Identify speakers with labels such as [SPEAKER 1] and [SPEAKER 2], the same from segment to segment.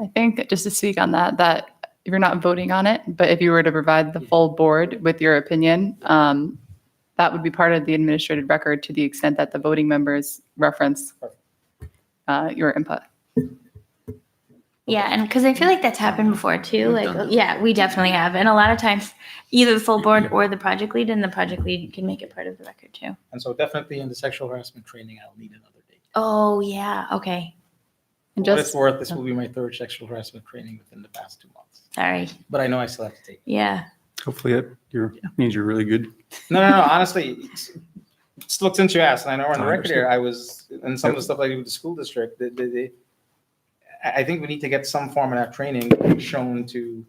[SPEAKER 1] I think, just to speak on that, that you're not voting on it, but if you were to provide the full board with your opinion, um, that would be part of the administrative record to the extent that the voting members reference uh, your input.
[SPEAKER 2] Yeah, and because I feel like that's happened before too.
[SPEAKER 3] We've
[SPEAKER 2] like,
[SPEAKER 3] done that.
[SPEAKER 2] yeah, we definitely have, and a lot of times, either the full board or the project lead, and the project lead can make it part of the record too.
[SPEAKER 4] And so definitely in the sexual harassment training, I'll need another date.
[SPEAKER 2] Oh yeah, okay,
[SPEAKER 1] And
[SPEAKER 4] For what it's
[SPEAKER 1] just,
[SPEAKER 4] worth, this will be my third sexual harassment training within the past two months.
[SPEAKER 2] sorry.
[SPEAKER 4] But I know I still have to take.
[SPEAKER 2] Yeah,
[SPEAKER 3] Hopefully, it you're, means you're really good.
[SPEAKER 4] No, no, no, honestly, it's- it's looked into your ass, and I know on the
[SPEAKER 3] I
[SPEAKER 4] record here,
[SPEAKER 3] understand.
[SPEAKER 4] I was, and some of the
[SPEAKER 3] Yep.
[SPEAKER 4] stuff I do with the school district, they, they, they- I, I think we need to get some form of that training shown to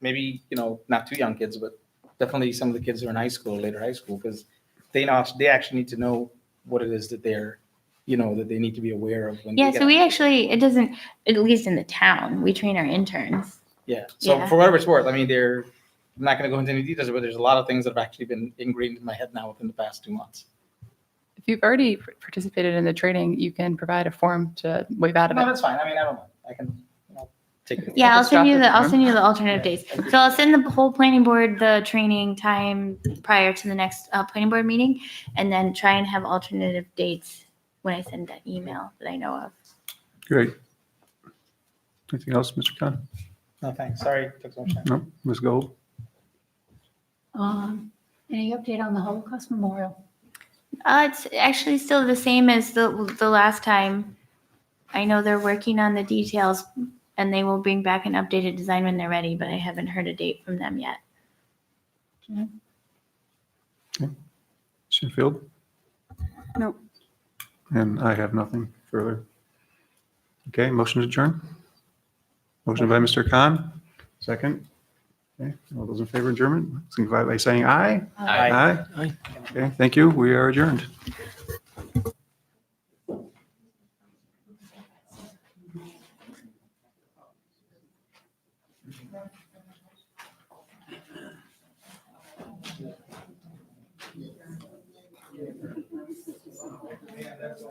[SPEAKER 4] maybe, you know, not too young kids, but definitely some of the kids who are in high school, or later high school, because they know, they actually need to know what it is that they're, you know, that they need to be aware of. when they
[SPEAKER 2] yeah.
[SPEAKER 4] get
[SPEAKER 2] So
[SPEAKER 4] out.
[SPEAKER 2] we actually, it doesn't, at least in the town, we train our interns.
[SPEAKER 4] Yeah. So
[SPEAKER 2] Yeah.
[SPEAKER 4] for whatever it's worth, I mean, they're I'm not going to go into any details, but there's a lot of things that have actually been ingrained in my head now within the past two months.
[SPEAKER 1] if you've already participated in the training, you can provide a form to waive out of
[SPEAKER 4] No,
[SPEAKER 1] it.
[SPEAKER 4] that's fine. I mean, I don't know. I can you know, take it.
[SPEAKER 2] Yeah, I'll
[SPEAKER 1] just
[SPEAKER 2] send
[SPEAKER 1] drop
[SPEAKER 2] you
[SPEAKER 1] it
[SPEAKER 2] the I'll
[SPEAKER 1] down.
[SPEAKER 2] send you the alternative dates. So I'll send the whole planning board the training time prior to the next uh, planning board meeting, and then try and have alternative dates when I send that email that I know of.
[SPEAKER 3] Great. Anything else, Mr. Khan?
[SPEAKER 4] No, thanks. Sorry, took so much time.
[SPEAKER 3] No, Ms. Gold?
[SPEAKER 5] Um, any update on the Holocaust Memorial?
[SPEAKER 2] Uh, it's actually still the same as the the last time. I know they're working on the details, and they will bring back an updated design when they're ready. But I haven't heard a date from them yet.
[SPEAKER 3] Shinfield?
[SPEAKER 6] No.
[SPEAKER 3] And I have nothing further. Okay, motion to adjourn. Motion by Mr. Khan, second. Okay, all those in favor of adjournment, signify by saying aye.
[SPEAKER 4] Aye.
[SPEAKER 3] Aye. Okay, thank you. We are adjourned.